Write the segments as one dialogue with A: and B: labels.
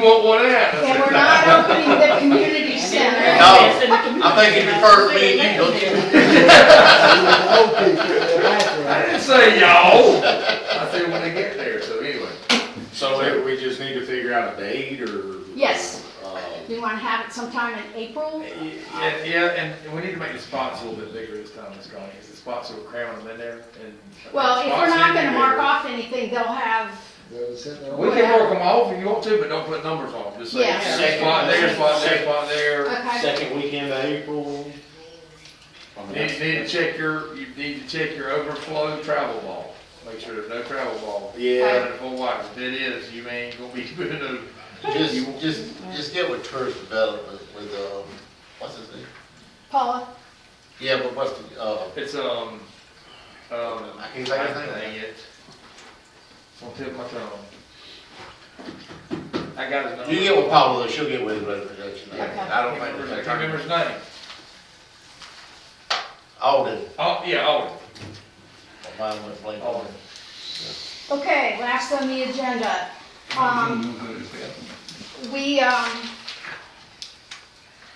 A: What would happen?
B: And we're not opening the community center.
C: No, I think it refers to me and you, don't you?
A: I didn't say y'all. I said when they get there, so anyway.
D: So we- we just need to figure out a date or?
B: Yes.
D: Uh,
B: We want to have it sometime in April.
A: Yeah, yeah, and we need to make the spots a little bit bigger this time, Ms. Connie, because the spots are cramming them in there and.
B: Well, if we're not gonna mark
A: off.
B: off anything, they'll have,
A: We can mark them off if you want to, but don't put numbers on, them. just say,
B: Yeah. Uh,
A: spot there, spot there, spot there.
B: okay,
D: Second weekend of April? I mean,
A: You Need,
D: that's-
A: you need to check your, you need to check your overflow travel ball, make sure there's no travel ball.
D: Yeah,
A: Running full wide, if it is, you ain't gonna be good enough.
E: Just, just, just get with tourist development with, um, what's his name?
B: Paula,
E: Yeah, but what's the, uh,
A: It's, um, um,
E: I can't think
A: Dang
E: of his name.
A: it. Won't tip my tongue. I got his number.
E: You get with Paula, she'll get with the representation. I
A: I
E: don't
A: can't
E: think.
A: remember- I can't remember his name.
E: Alden,
A: Oh, yeah, Alden.
E: mine went blank.
A: Alden.
B: okay, last on the agenda. Um, we, um,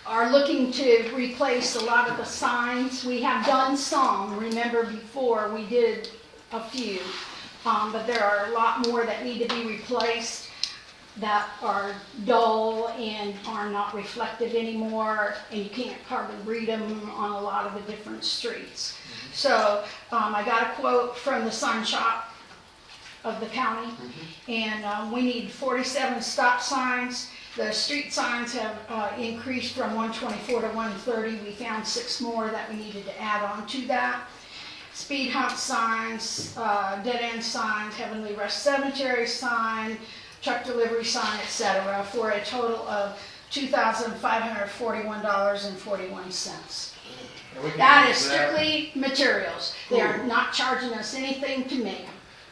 B: are looking to replace a lot of the signs. We have done some, remember before, we did a few. Um, but there are a lot more that need to be replaced that are dull and are not reflective anymore, and you can't hardly read them on a lot of the different streets. So, um, I got a quote from the sign shop of the county, and, um, we need forty-seven stop signs. The street signs have, uh, increased from one twenty-four to one thirty, we found six more that we needed to add on to that speed hump signs, uh, dead end signs, Heavenly Rest Cemetery sign, truck delivery sign, et cetera, for a total of two thousand five hundred forty-one dollars and forty-one cents.
A: And we can
B: That is
A: use
B: strictly materials. They are not charging us anything to make. 'em.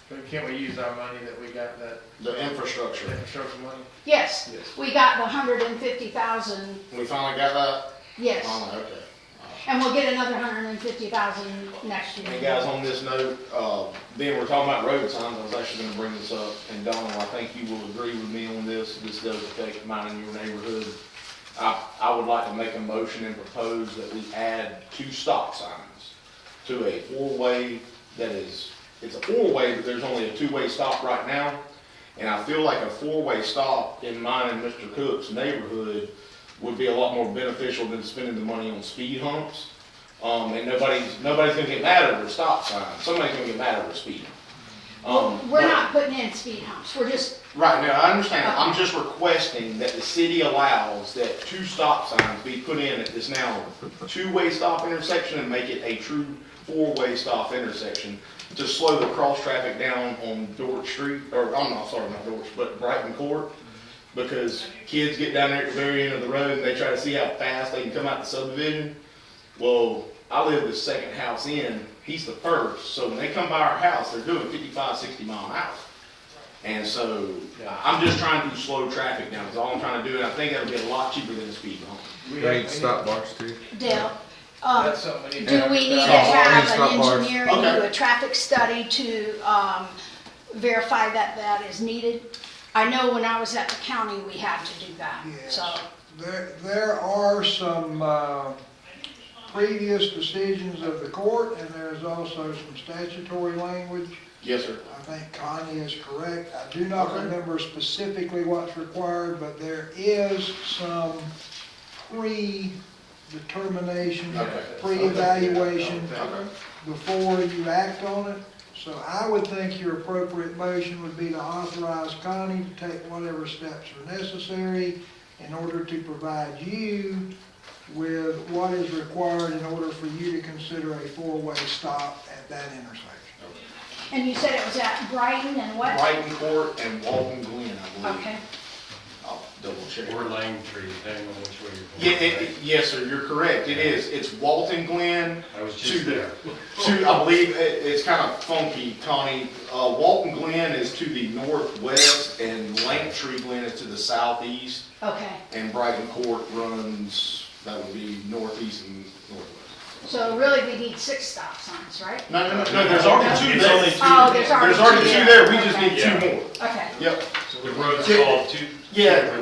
A: But Can't we use our money that we got, that
D: the infrastructure.
A: infrastructure money?
B: Yes,
A: Yes.
B: we got the hundred and fifty thousand,
D: We finally got that?
B: yes,
D: Oh, okay.
B: and we'll get another hundred and fifty thousand next year.
D: And guys, on this note, uh, then we're talking about road signs, I was actually gonna bring this up, and Donald, I think you will agree with me on this, this does affect mine and your neighborhood. I, I would like to make a motion and propose that we add two stop signs to a four-way that is, it's a four-way, but there's only a two-way stop right now. And I feel like a four-way stop in mine and Mr. Cook's neighborhood would be a lot more beneficial than spending the money on speed humps. Um, and nobody's, nobody's gonna get mad over a stop sign, somebody's gonna get mad over speed. Um,
B: We're
D: but-
B: not putting in speed humps, we're just
D: Right, now, I understand, I'm just requesting that the city allows that two stop signs be put in at this now two-way stop intersection and make it a true four-way stop intersection to slow the cross-traffic down on Dorch Street, or, I'm not, sorry, not Dorch, but Brighton Court. Because kids get down there at the very end of the road and they try to see how fast they can come out the subdivision. Well, I live the second house in, he's the first, so when they come by our house, they're doing 55, 60 mile an hour. And so, I'm just trying to slow traffic down, is all I'm trying to do, and I think that'll be a lot cheaper than a speed bump.
A: We
F: They
A: have-
F: need stop bars too.
B: Dell. Uh,
A: That's something we need
B: Do
A: to.
B: we need to
F: Stop bar,
B: have
F: stop
B: an
F: bar.
B: engineer and
D: Okay.
B: do a traffic study to um, verify that that is needed? I know when I was at the county, we had to do that,
G: Yes.
B: so,
G: There, there are some uh, previous decisions of the court, and there's also some statutory language.
D: Yes, sir.
G: I think Connie is correct. I do not
D: Okay.
G: remember specifically what's required, but there is some pre-determination,
D: Okay.
G: pre-evaluation
D: Okay.
G: before you act on it. So I would think your appropriate motion would be to authorize Connie to take whatever steps are necessary in order to provide you with what is required in order for you to consider a four-way stop at that intersection.
B: and you said it was at Brighton and what?
D: Brighton Court and Walton Glen, I believe.
B: Okay,
D: I'll double check.
H: Or Lang Tree, depending on which way
D: Yeah,
H: you're going.
D: it, it- yes, sir, you're correct, it is, it's Walton Glen
H: I was
D: to
H: just
D: the,
H: there.
D: to, I believe, it, it's kind of funky, Connie. Uh, Walton Glen is to the northwest and Langtree Glen is to the southeast,
B: okay.
D: and Brighton Court runs, that would be northeast and northwest.
B: So really, we need six stop signs, right?
D: No, no, no, no, there's already two
H: It's
D: there.
H: only two.
B: Oh, there's already
D: There's already two there, we just
B: Okay.
D: need two more.
B: Okay.
D: Yep.
H: The road's called two.
D: Yeah,